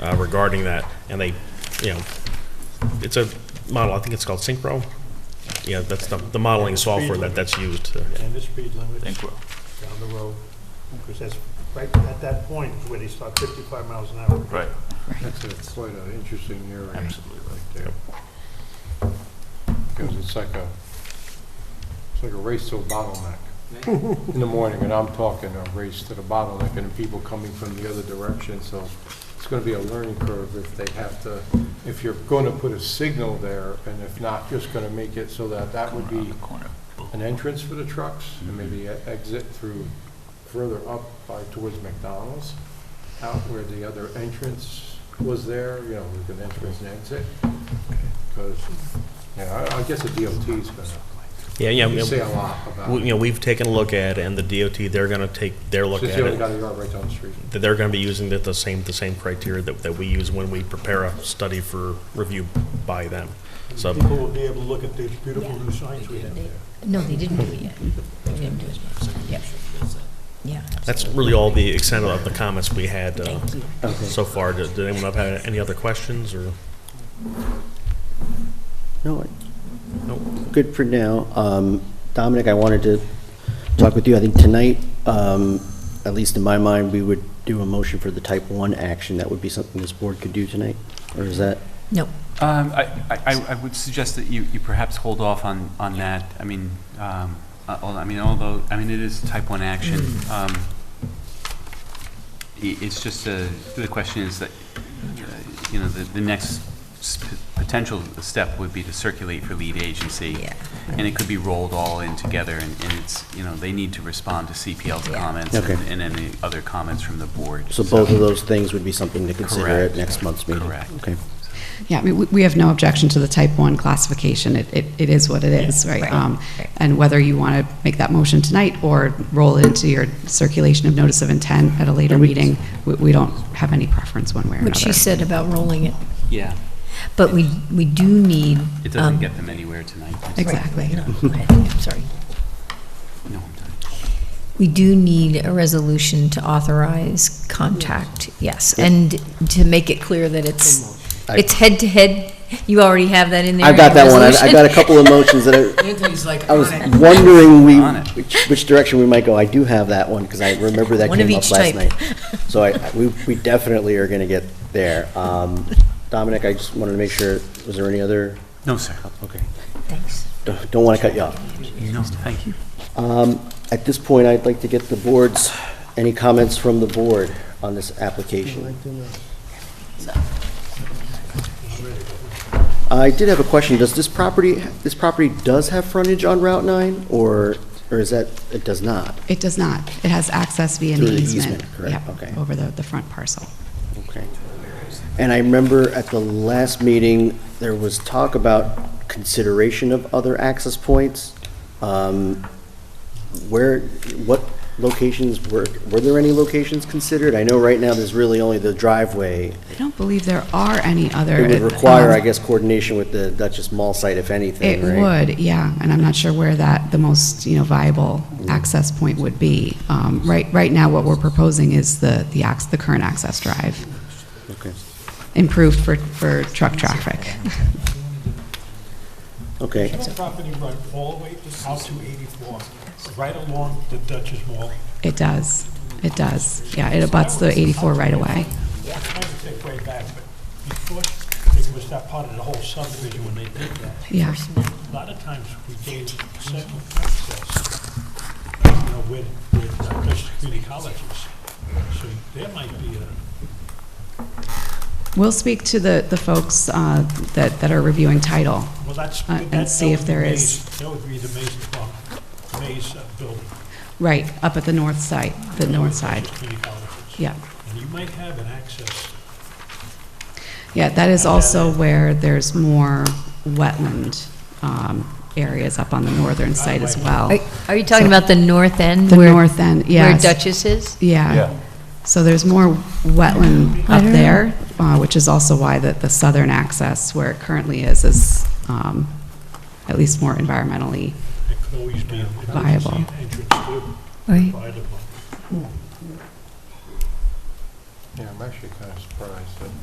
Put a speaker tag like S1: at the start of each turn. S1: uh, regarding that, and they, you know, it's a model, I think it's called Synchro. Yeah, that's the, the modeling software that, that's used.
S2: and the speed limits
S3: Thank you.
S2: down the road. Because that's, right at that point is where they start 55 miles an hour.
S3: Right,
S4: That's a slight, uh, interesting area right
S3: absolutely right.
S4: there. Because it's like a, it's like a race to a bottleneck. In the morning, and I'm talking a race to the bottleneck, and people coming from the other direction, so it's gonna be a learning curve if they have to, if you're gonna put a signal there, and if not, just gonna make it so that that would
S3: Corner on
S4: be
S3: the corner.
S4: an entrance for the trucks, and maybe e- exit through further up by towards McDonald's, out where the other entrance was there, you know, with an entrance and exit. Because, yeah, I I guess the DOT's gonna
S1: Yeah, yeah,
S4: say
S1: we-
S4: a lot about
S1: you
S4: it.
S1: know, we've taken a look at, it, and the DOT, they're gonna take their look
S4: Since
S1: at
S4: you only
S1: it.
S4: got a yard right down the street.
S1: that they're going to be using the, the same, the same criteria that, that we use when we prepare a study for review by them. So,
S2: People will be able to look at these beautiful new signs we have there.
S5: No, they didn't do it yet. They didn't do it yet. Yep. Yeah.
S1: that's really all the extent of the comments we had, uh,
S5: Thank you.
S1: so far. Did did anyone have any other questions, or?
S6: No, good for now. Um, Dominic, I wanted to talk with you. I think tonight, um, at least in my mind, we would do a motion for the type 1 action. That would be something this board could do tonight? Or is that,
S5: No,
S7: Um, I, I, I would suggest that you, you perhaps hold off on, on that. I mean, um, uh, al- I mean, although, I mean, it is type one action.
S5: Mm.
S7: Um, i- it's just a, the question is that, uh, you know, the, the next s- p- potential step would be to circulate for lead agency.
S5: yeah.
S7: And it could be rolled all in together and, and it's, you know, they need to respond to CPL's
S5: Yeah.
S7: comments
S6: Okay.
S7: and and any other comments from the board.
S6: so both of those things would be something to consider at
S7: Correct.
S6: next month's meeting?
S7: Correct.
S6: Okay.
S8: Yeah, I mean, we- we have no objection to the type 1 classification. It- It it is what it is, right?
S5: right,
S8: Um,
S5: right.
S8: And whether you want to make that motion tonight or roll it into your circulation of notice of intent at a later
S6: And we-
S8: meeting, we- we don't have any preference one way or another.
S5: What she said about rolling it,
S7: Yeah,
S5: but we, we do need.
S7: it
S5: um,
S7: doesn't get them anywhere tonight.
S8: Exactly.
S5: Right, no, I- I'm sorry.
S7: No, I'm done.
S5: We do need a resolution to authorize contact, yes, and to make it clear that it's,
S6: I-
S5: it's head-to-head. You already have that in there.
S6: I've
S5: in
S6: got
S5: your
S6: that one. I- I got a
S5: resolution.
S6: couple of motions that are,
S9: Anthony's like,
S6: I was
S9: on it.
S6: wondering we,
S7: On it.
S6: which- which direction we might go. I do have that one, because I remember that
S5: One of
S6: came
S5: each
S6: up last
S5: type.
S6: night. So I, I- we we definitely are going to get there. Um, Dominic, I just wanted to make sure, was there any other?
S7: No, sir.
S5: Oh,
S6: Okay.
S5: Thanks.
S6: Don't- Don't want to cut you off.
S7: No, thank you.
S6: Um, At this point, I'd like to get the board's, any comments from the board on this application? I did have a question. Does this property, this property does have frontage on Route 9, or, or is that, it does not?
S8: It does not. It has access via an
S6: Through the
S8: easement.
S6: easement, correct,
S8: Yep,
S6: okay.
S8: Over the the front parcel.
S6: Okay. And I remember at the last meeting, there was talk about consideration of other access points. Um, Where, what locations were, were there any locations considered? I know right now there's really only the driveway.
S8: I don't believe there are any other.
S6: It would require,
S8: um,
S6: I guess, coordination with the Duchess Mall site, if anything,
S8: It
S6: right?
S8: would, yeah, and I'm not sure where that, the most, you know, viable access point would be. Um, Right, right now, what we're proposing is the, the ax, the current access drive,
S6: Okay,
S8: improved for, for truck traffic.
S6: okay.
S2: That property run all the way out to 84, right along the Duchess Mall.
S8: It does, it does, yeah, it abuts the 84 right away.
S2: Kind of take way back, but before, it was that part of the whole subdivision when they did that.
S8: yeah.
S2: A lot of times we gave second access, you know, with, with uh, Dutchess community colleges. So there might be a,
S8: We'll speak to the, the folks uh, that, that are reviewing title.
S2: well, that's.
S8: Uh,
S2: that-
S8: and
S2: that
S8: see if
S2: would be
S8: there
S2: Mays-
S8: is-
S2: That would be the Mays, Club, Mays uh, building.
S8: Right, up at the north side, the north side,
S2: Dutchess Community colleges.
S8: yeah.
S2: And you might have an access.
S8: Yeah, that is also where there's more wetland um, areas up on the northern side as well.
S6: Oh.
S5: Are are you talking about the north end?
S8: The
S5: where-
S8: north end, yes.
S5: Where Duchess is?
S8: Yeah. So there's more wetland
S5: I
S8: up
S5: don't know.
S8: there, uh, which is also why the, the southern access where it currently is, is um, at least more environmentally.
S2: It could always be an
S8: Viable.
S2: emergency entrance too,
S5: Right.
S2: by the.
S4: Yeah, I'm actually kind of surprised that